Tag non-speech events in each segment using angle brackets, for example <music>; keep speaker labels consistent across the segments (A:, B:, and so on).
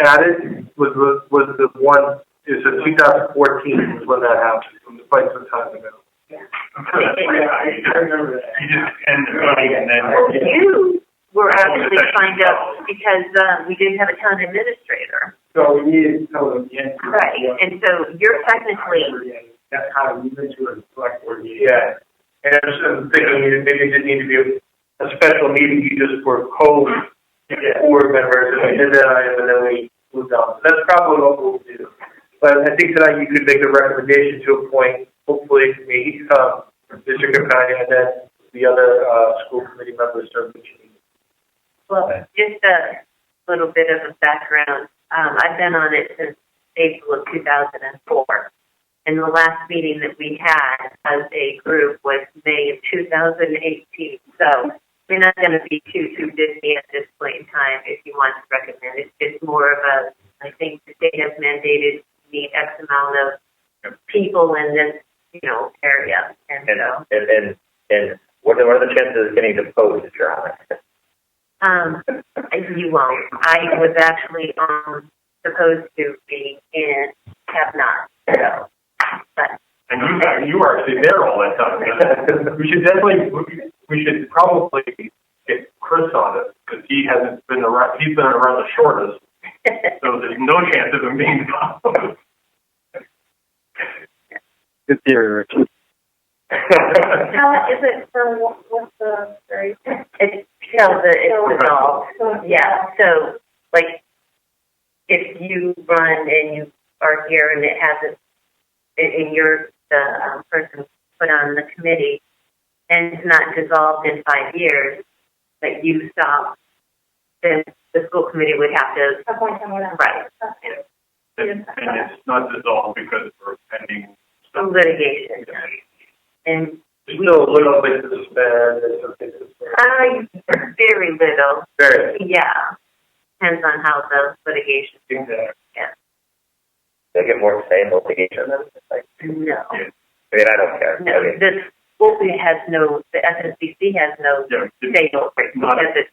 A: added was, was, was the one, is the 2014 was when that happened, quite some time ago.
B: I remember that.
C: You just end the meeting and then.
D: Well, you were actually signed up because, um, we didn't have a town administrator.
B: So we needed to tell them yes.
D: And so you're technically,
B: That's how we went to a select board meeting.
A: Yeah, and I was uh, thinking you- maybe it didn't need to be a special meeting, you just were code board members, and we did that item, and then we moved on. So that's probably what we'll do. But I think tonight you could make a recommendation to appoint, hopefully, me, uh, Mr. Capani, and then the other, uh, school committee members serve the committee.
D: well, just a little bit of a background. Um, I've been on it since April of two thousand and four. And the last meeting that we had as a group was May of two thousand and eighteen. So we're not gonna be too, too busy at this point in time if you want to recommend. it. It's more of a, I think the state has mandated the X amount of people in this, you know, area. And
E: And, uh,
D: so,
E: and, and, and what are, what are the chances of getting deposed, Your Honor?
D: Um, you won't. I was actually um supposed to be and have <laughs> not. So, but
C: And you, you were actually there all that time. We should definitely, we- we should probably get Chris on it, because he hasn't been around, he's been around the shortest, so there's no chance of him being involved.
F: Good theory, Rich.
G: How is it for what, what's the, sorry? <laughs>
D: it's still the it's dissolved. Yeah. So like, if you run and you are here and it hasn't, and and you're the um, person put on the committee and it's not dissolved in five years, that you stop, then the school committee would have to
G: Appoint someone else.
D: right.
C: And it's not dissolved because we're pending
D: some
C: stuff.
D: litigation. And
A: There's still a little bit to spend, there's some things to spend.
D: I very little,
A: Very,
D: yeah. Depends on how the litigation.
A: exactly.
E: They get more say in litigation than, like,
D: No,
E: I mean, I don't care.
D: no.
E: I mean,
D: The school has no. The SSBC has no
C: Yeah, it's
D: say over it
C: Not-
D: because it's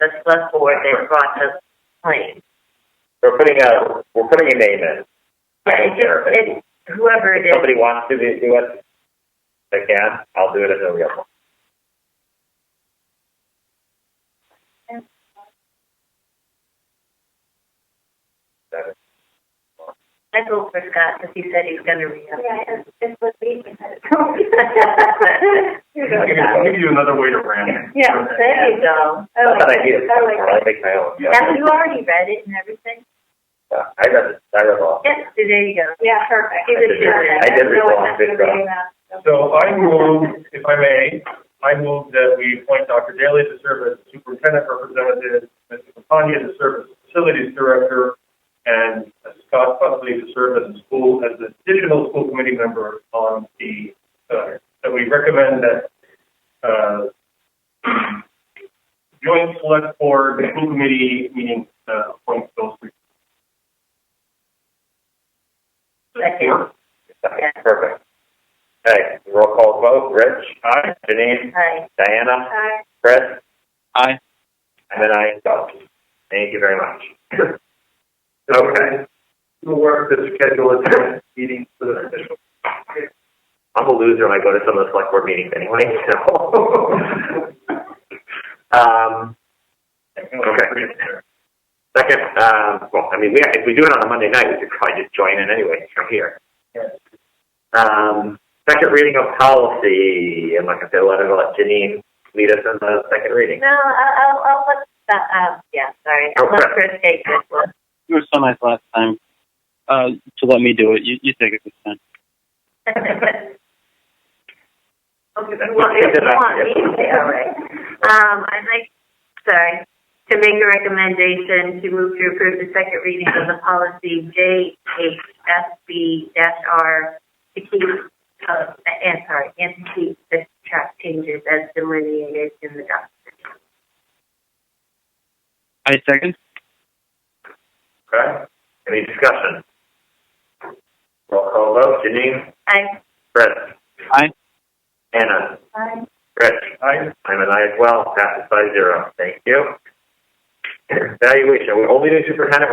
D: the select board that brought the claim.
E: we're putting a, we're putting a name in. I don't care. If
D: It's whoever it is.
E: somebody wants to do do it, they can, I'll do it as a real one.
D: I vote for Scott because he said he's going to re
G: Yeah, it's, it's with me. <laughs> Here
C: I'll
G: we
C: give
G: go.
C: you- I'll give you another way to rant.
G: Yeah,
D: There you go.
G: I like
E: That's an idea,
G: that. I like that.
E: I'll make my own.
G: Have you already read it and everything?
E: Uh, I read, it- I read it all.
D: Yes, there you go.
G: Yeah, perfect.
D: I did read
E: it. I did read it.
G: No one has to
E: Good job.
G: read that,
A: So
G: so.
A: I move, if I may, I move that we appoint Dr. Daly to serve as superintendent representative, Mr. Campagna to serve as facilities director, and Scott Buckley to serve as a school, as an additional school committee member on the, uh, that we recommend that, uh, joint select board, school committee meeting, uh, appoint those three.
D: Second.
E: Perfect. Okay, roll call vote, Rich,
C: Aye.
E: Janine,
D: Hi.
E: Diana,
G: Hi.
E: Chris,
F: Aye.
E: and then I go. Thank you very much.
A: Okay. We'll work to schedule a meeting for the official
E: I'm a loser when I go to some of the select board meetings anyway, <laughs> so. Um, okay. Second, um, well, I mean, we, if we do it on a Monday night, we could probably just join in anyway from here. Um, second reading of policy, I'm not gonna say a lot about Janine, lead us in the second reading.
D: No, I'll, I'll, I'll let Scott. Uh, yeah, sorry. I'll let Chris take this one.
F: You were so nice last time uh, to let me do it. You, you take it this time.
D: Okay, you want, you want me <laughs> to say, all right. Um, I'd like, sorry, to make a recommendation to move to approve the second reading of the policy JHSB dash R to keep, uh, and sorry, and to keep the track changes as delineated in the document.
F: I second.
E: Okay, any discussion? Roll call vote, Janine,
D: I,
E: Chris.
F: Aye.
E: Anna,
G: Hi.
E: Rich. I'm an <clears throat> I as well, passes by zero. Thank you. Evaluation, we're only doing superintendent,